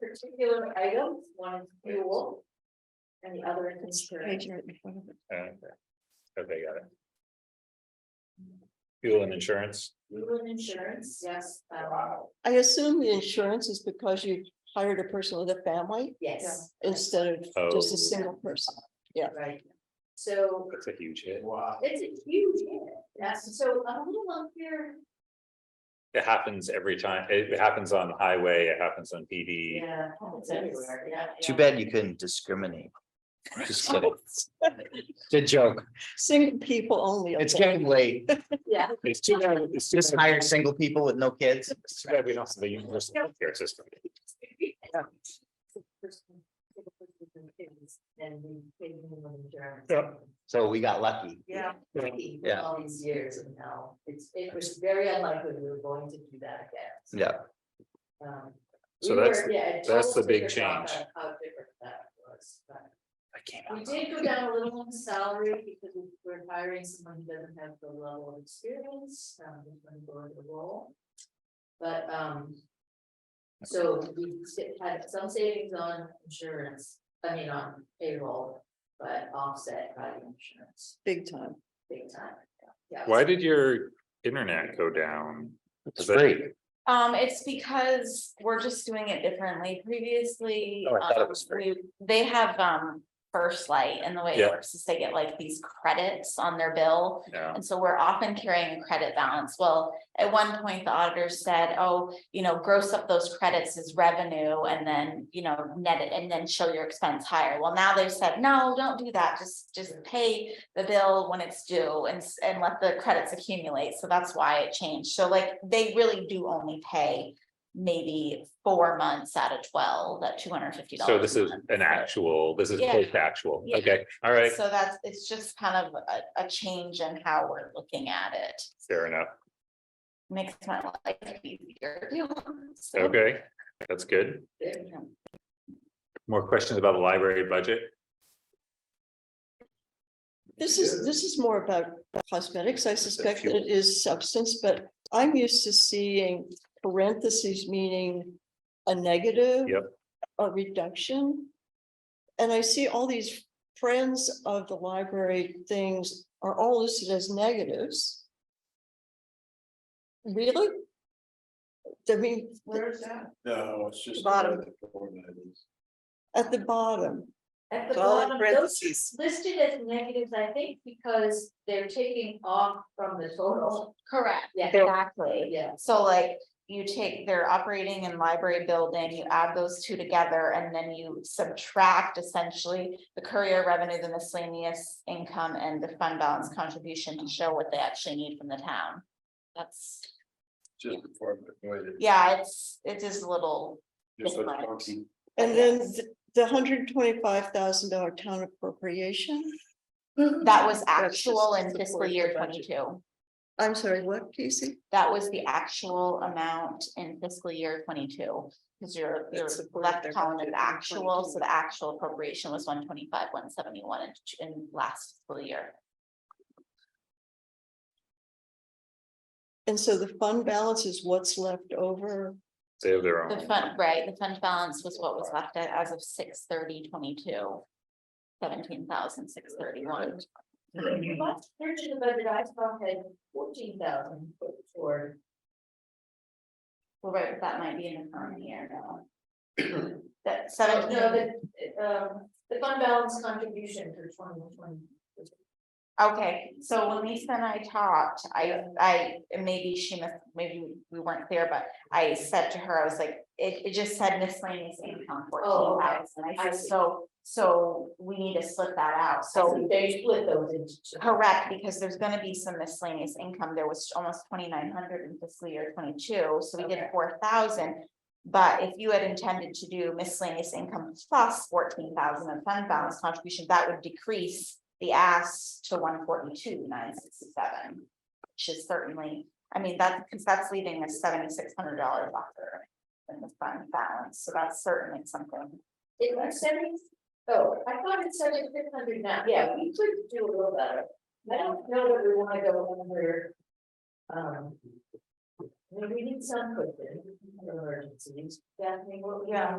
particular items, one is fuel. And the other is insurance. Page right in front of it. Okay, Okay, uh, got it. Fuel and insurance, Fuel and insurance, yes, um, I assume the insurance is because you hired a person with a family yes. instead of just Oh. a single person. Right. So that's a huge hit. Wow. it's a huge hit. That's so I'm a little unclear. It happens every time. It happens on the highway, it happens on PD. Yeah, it's everywhere, yeah. Too yeah. bad you couldn't discriminate. Just kidding. Good joke. Single people only. It's getting late. Yeah. It's too bad, it's Just just hire single people with no kids. It's too bad we don't have the universal health care system. And we paid them on insurance. Yeah. So we got lucky. Yeah. Yeah. lucky with Yeah. All these years and now it's, it was very unlikely we were going to do that again. Yeah. Um, we So were- that's- yeah, it that's the totally big different change. How how different that was, but. I can't. We did go down a little on the salary because we- we're hiring someone who doesn't have the level of experience, um, who's gonna go into the role. But, um. So we sti- had some savings on insurance, I mean, on payroll, but offset by the insurance, Big time. big time. yeah. Why did your internet go down? It's free. Um, it's because we're just doing it differently previously. Oh, I thought it um, was free. we- They have, um, first light and the way Yeah. it works is they get like these credits on their bill. Yeah, And so we're often carrying a credit balance. Well, at one point, the auditor said, oh, you know, gross up those credits as revenue and then, you know, net it and then show your expense higher. Well, now they've said, no, don't do that. Just, just pay the bill when it's due and, s- and let the credits accumulate. So that's why it changed. So like, they really do only pay maybe four months out of twelve, that two hundred and fifty dollars. so this is an actual, this is Yeah. post-actual. Yeah. Okay, all right, So that's, it's just kind of a, a change in how we're looking at it fair enough. makes my life easier. So, Okay, that's good. There. yeah. More questions about the library budget? This is, this is more about cosmetics. I suspect that it is substance, but I'm used to seeing parentheses meaning a negative. Yep. A reduction. And I see all these friends of the library things are all listed as negatives. Really? I mean, Where's that? No, it's just. Bottom. It's at the bottom. At the All in bottom, those parentheses. listed as negatives, I think, because they're taking off from the total. Correct, Yeah. exactly. Yeah. So like you take their operating and library building, you add those two together and then you subtract essentially the courier revenue, the miscellaneous income and the fund balance contribution to show what they actually need from the town. That's, Just before. the way that- yeah, it's, it is a little, just so Right. funky. And then th- the hundred twenty-five thousand dollar town appropriation. that was That's just actual in to fiscal support the year budget. twenty-two. I'm sorry, what, Casey? That was the actual amount in fiscal year twenty-two, because your, That your supported left their column budget is in actual, 22. so the actual appropriation was one twenty-five, one seventy-one in, in last fiscal year. And so the fund balance is what's left over. They have their The own. fund, right, the fund balance was what was left at as of six thirty twenty-two. Seventeen thousand six thirty-one, Last year to the budget, I saw had fourteen thousand for, well, right, that might be in the current year now. That oh, no, seventeen, the, um, the fund balance contribution for twenty twenty. okay, so when Lisa and I talked, I, I, and maybe she must, maybe we weren't clear, but. I said to her, I was like, it, it just said miscellaneous income Oh, fourteen okay. thousand, I I said, see. so, so we need to split that out, so. So they split those into. two. Correct, because there's gonna be some miscellaneous income, there was almost twenty-nine hundred in fiscal year twenty-two, so we did Okay. four thousand. But if you had intended to do miscellaneous income plus fourteen thousand in fund balance contribution, that would decrease the ask to one forty-two, nine sixty-seven. Which is certainly, I mean, that, because that's leaving a seventy-six hundred dollar buffer in the fund balance, so that's certainly something. It was seventy, oh, I thought it said it's six hundred now, yeah, we could do a little better. I don't know that we wanna go under. Um. I mean, We need some cushion for emergencies, definitely, well, yeah.